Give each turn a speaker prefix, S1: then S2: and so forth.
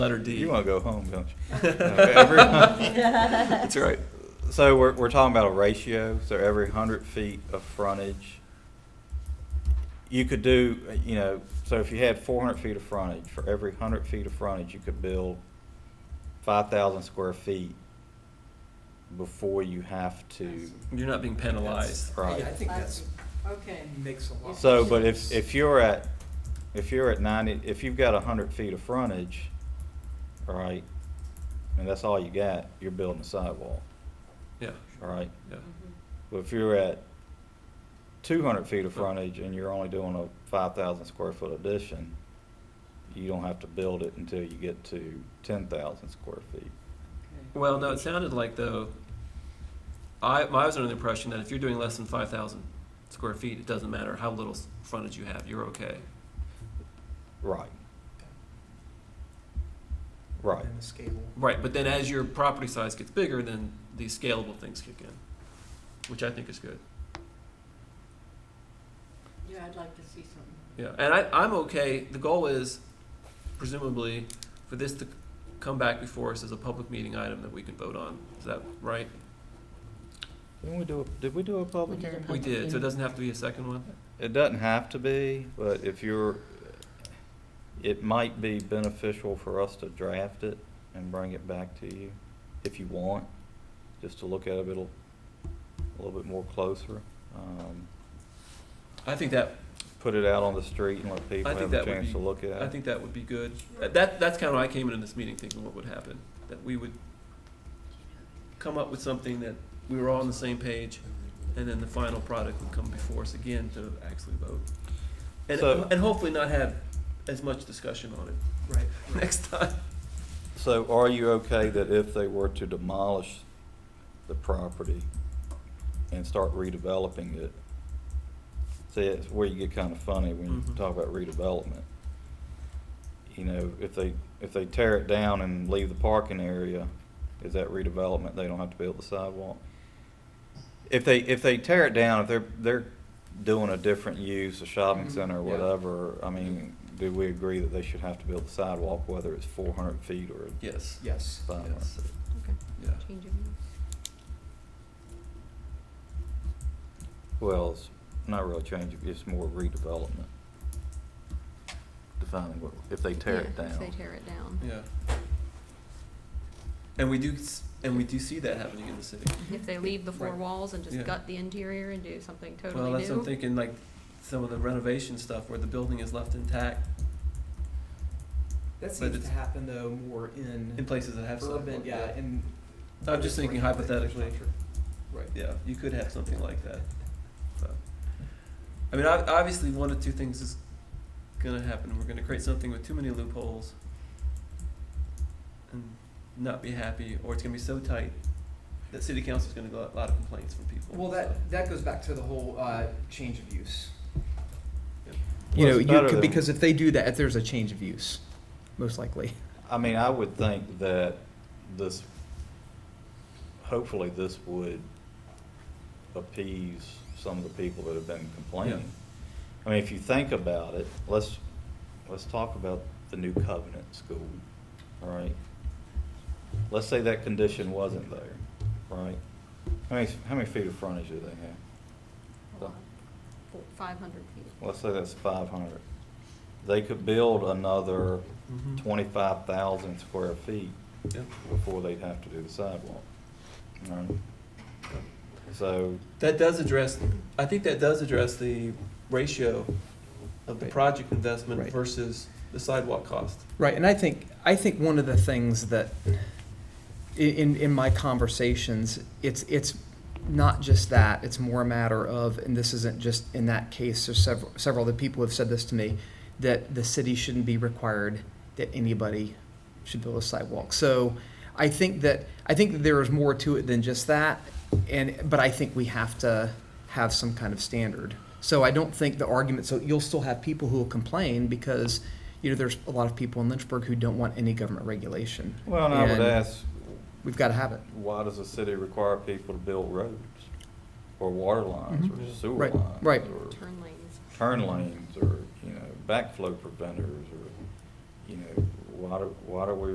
S1: Letter D.
S2: You want to go home, don't you? No, every-
S3: That's
S2: right. So we're, we're talking about a ratio, so every hundred feet of frontage, you could do, uh, you know, so if you had four hundred feet of frontage, for every hundred feet of frontage, you could build five thousand square feet before you have to.
S1: You're not being penalized.
S2: Right.
S4: Yeah, I think that's,
S3: Okay.
S4: makes a lot.
S2: So, but if, if you're at, if you're at ninety, if you've got a hundred feet of frontage, all right, and that's all you got, you're building a sidewalk,
S1: Yeah,
S2: all right?
S3: Mm-hmm.
S1: yeah.
S2: But if you're at two hundred feet of frontage and you're only doing a five thousand square foot addition, you don't have to build it until you get to ten thousand square feet.
S1: Well, no, it sounded like though, I, I was under the impression that if you're doing less than five thousand square feet, it doesn't matter how little s- frontage you have, you're okay.
S2: Right. Right,
S4: And the scale.
S1: Right, but then as your property size gets bigger, then these scalable things kick in, which I think is good.
S3: Yeah, I'd like to see something.
S1: Yeah, and I, I'm okay, the goal is presumably for this to come back before us as a public meeting item that we can vote on, is that right?
S2: didn't we do, a- did we do a public
S3: We did a
S2: hearing?
S1: We
S3: Public
S1: did, so it
S3: meeting.
S1: doesn't have to be a second one?
S2: It doesn't have to be, but if you're, it might be beneficial for us to draft it and bring it back to you, if you want, just to look at it a little, a little bit more closer. Um,
S1: I think that,
S2: Put it out on the street and let people
S1: I think
S2: have
S1: that
S2: a
S1: would
S2: chance
S1: be-
S2: to look at it.
S1: I think that would be good. That, that's kind of what I came into this meeting thinking what would happen, that we would come up with something that we were all on the same page, and then the final product would come before us again to actually vote. And,
S2: So-
S1: and hopefully not have as much discussion on it
S4: Right.
S1: next time.
S2: So are you okay that if they were to demolish the property and start redeveloping it? See, it's where you get kind of funny when you
S1: Mhm.
S2: talk about redevelopment. You know, if they, if they tear it down and leave the parking area, is that redevelopment? They don't have to build the sidewalk? If they, if they tear it down, if they're, they're doing a different use, a shopping
S4: Mhm.
S2: center or
S1: Yeah.
S2: whatever, I mean, do we agree that they should have to build the sidewalk, whether it's four hundred feet or
S1: Yes.
S4: Yes.
S2: five hundred
S1: Yes.
S2: feet?
S1: Yeah.
S3: Change
S2: Well, it's not really changing, it's more redevelopment. Defining what, if they tear it
S5: If they
S2: down.
S5: tear it down.
S1: Yeah. And we do, s- and we do see that happening in the city.
S5: If they leave the four
S1: Right.
S5: walls and
S1: Yeah.
S5: just gut the interior and do something totally new.
S1: Well, that's what I'm thinking, like, some of the renovation stuff where the building is left intact
S4: That
S1: it's-
S4: seems to happen though more
S1: in
S4: in
S1: places that have sidewalk.
S4: urban, yeah, in.
S1: I'm just thinking hypothetically.
S4: Right.
S1: Yeah, you could have something like that. So, I mean, ob- obviously, one of two things is gonna happen. We're gonna create something with too many loopholes and not be happy, or it's gonna be so tight that city council's gonna get a lot of complaints from people.
S4: Well, that, that goes back to the whole, uh, change of use.
S2: You know, Well, it's you better could- than- because
S4: because if they do that, there's a change of use, most likely.
S2: I mean, I would think that this, hopefully this would appease some of the people that have been complaining. I mean, if you think about it, let's, let's talk about the new covenant school, all right? Let's say that condition wasn't there, right? How many, how many feet of frontage do they have?
S5: Five hundred feet.
S2: let's say that's five hundred, they could build another Mm-hmm.
S1: Mhm.
S2: twenty-five thousand square feet
S1: Yeah.
S2: before they'd have to do the sidewalk. All right? So,
S1: That does address, I think that does address the ratio of the
S4: Right.
S1: project investment
S4: Right.
S1: versus the sidewalk cost.
S4: Right, and I think, I think one of the things that, i- in, in my conversations, it's, it's not just that, it's more a matter of, and this isn't just in that case, there's several, several other people have said this to me, that the city shouldn't be required that anybody should build a sidewalk. So I think that, I think that there is more to it than just that, and, but I think we have to have some kind of standard. So I don't think the argument, so you'll still have people who will complain because, you know, there's a lot of people in Lynchburg who don't want any government regulation.
S2: well, and I would
S4: And
S2: ask,
S4: We've got to have it.
S2: why does the city require people to build roads? Or water lines,
S4: Mhm.
S2: or sewer
S4: Right,
S2: lines?
S4: right.
S2: Or
S5: Turn lanes.
S2: turn lanes, or, you know, backflow preventers, or, you know, why do, why do we